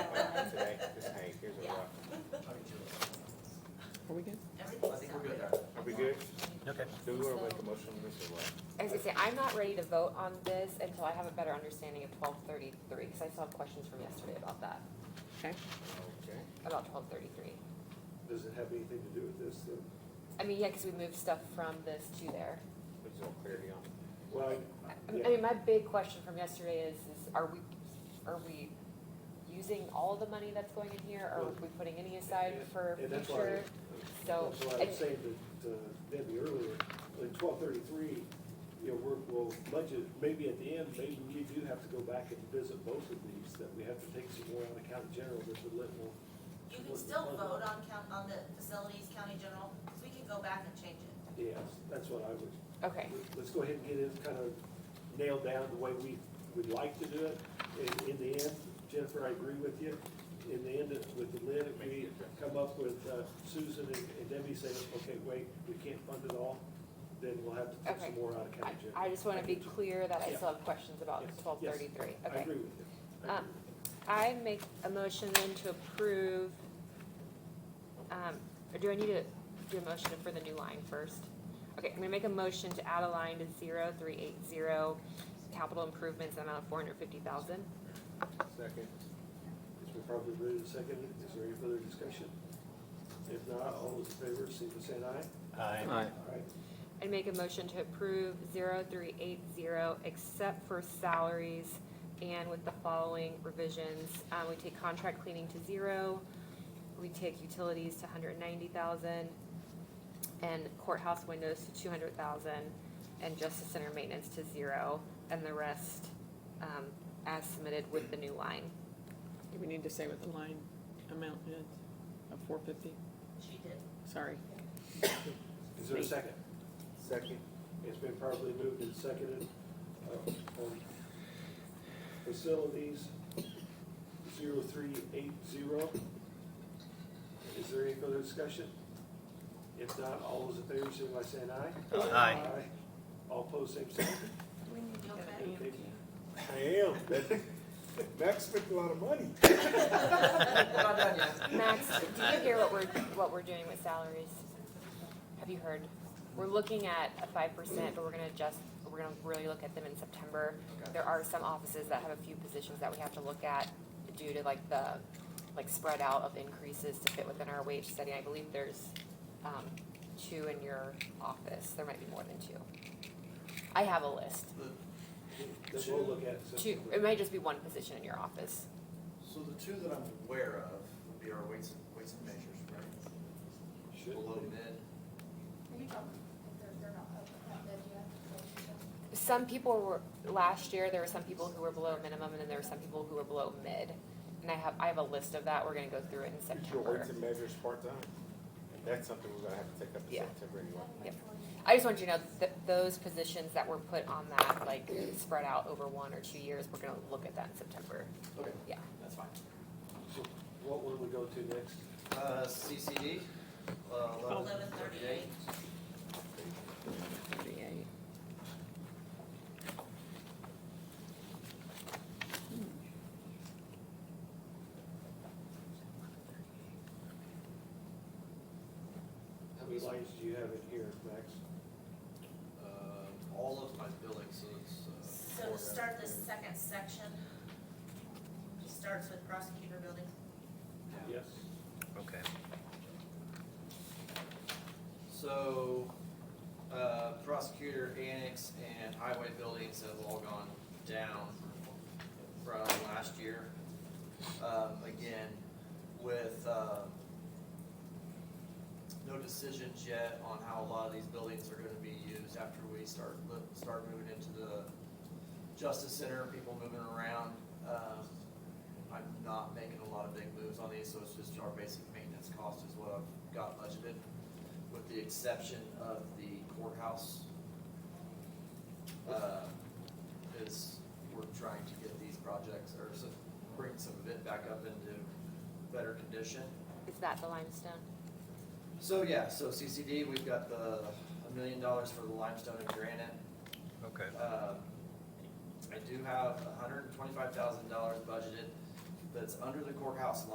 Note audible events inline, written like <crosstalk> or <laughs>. we good? I think we're good there. Are we good? Okay. Do we want to make a motion on this or what? As I say, I'm not ready to vote on this until I have a better understanding of twelve thirty-three, because I still have questions from yesterday about that, Okay. Okay. about twelve thirty-three. Does it have anything to do with this, though? I mean, yeah, because we moved stuff from this to there. There's no clarity on. Well, I- I yeah, mean, my big question from yesterday is, is are we, are we using all the money that's going in here, or are we putting any aside for and that's why, future? So, that's why I and- was saying that, uh, Debbie earlier, in twelve thirty-three, you know, we're, we'll budget, maybe at the end, maybe we do have to go back and visit both of these, that we have to take some more out of county general that the lit will. You can still vote on count, on the facilities, county general, because we can go back and change it. Yes, that's what I would, okay, let's go ahead and get it kind of nailed down the way we would like to do it. In, in the end, Jennifer, I agree with you. In the end, with the lid, if we come up with uh, Susan and and Debbie saying, okay, wait, we can't fund it all, then we'll have to take some Okay. more out of I, county general. I just wanna be clear that I Yeah. still have questions about Yes, yes. twelve thirty-three, I okay. agree with you. I Um, agree with you. I make a motion then to approve, um, or do I need to do a motion for the new line first? Okay, I'm gonna make a motion to add a line to zero three eight zero, capital improvements amount of four hundred fifty thousand. Second. It's been probably moved and seconded. Is there any further discussion? If not, all those in favor, signify by saying aye. Aye. All right. And make a motion to approve zero three eight zero, except for salaries and with the following revisions. Uh, we take contract cleaning to zero, we take utilities to hundred ninety thousand, and courthouse windows to two hundred thousand, and justice center maintenance to zero, and the rest, um, as submitted with the new line. Do we need to say what the line amount is of four fifty? She did. Sorry. Is there a second? Second. It's been properly moved and seconded uh, on facilities 0380. Is there any further discussion? If not, all those in favor, signify by saying aye. Aye. All opposed, same sign. You okay? I Okay. am. Max spent a lot of money. We're not done yet. Max, do you hear what we're, what we're doing with salaries? Have you heard? We're looking at a five percent, but we're gonna adjust, we're gonna really look at them in September. Okay. There are some offices that have a few positions that we have to look at due to like the, like spread out of increases to fit within our wage study. I believe there's, um, two in your office. There might be more than two. I have a list. Then we'll look at it. Two, separately. it might just be one position in your office. So the two that I'm aware of would be our weights and, weights and measures, right? Should Below be. mid, Are you talking, if they're, they're not up, not dead yet? some people were last year there were some people who were below minimum and then there were some people who were below mid and i have i have a list of that we're going to go through it in Is your weights september and measures part-time? That's something we're gonna have to take up in Yeah. September anyway. Yep. i just want you to know that those positions that were put on that like spread out over one or two years we're going to look at that in september okay, yeah that's fine. So What will we go to next? Uh, CCD, uh, eleven Eleven thirty-eight. thirty-eight. Thirty-eight. How many lines do you have in here, Max? Uh, all of my billing, so <laughs> it's, <laughs> uh. So to start this second section, it starts with prosecutor building. Yeah. Yes? Okay. So, uh, prosecutor annex and highway buildings have all gone down from last year. Um, again, with, uh, no decisions yet on how a lot of these buildings are gonna be used after we start, mo- start moving into the justice center, people moving around. Um, I'm not making a lot of big moves on these, so it's just our basic maintenance cost is what I've got budgeted with the exception of the courthouse. uh, Is, we're trying to get these projects, or some, bring some of it back up into better condition. is that the limestone So, yeah, so CCD, we've got the, a million dollars for the limestone and granite. Okay. Uh, I do have hundred and twenty-five thousand dollars budgeted that's under the courthouse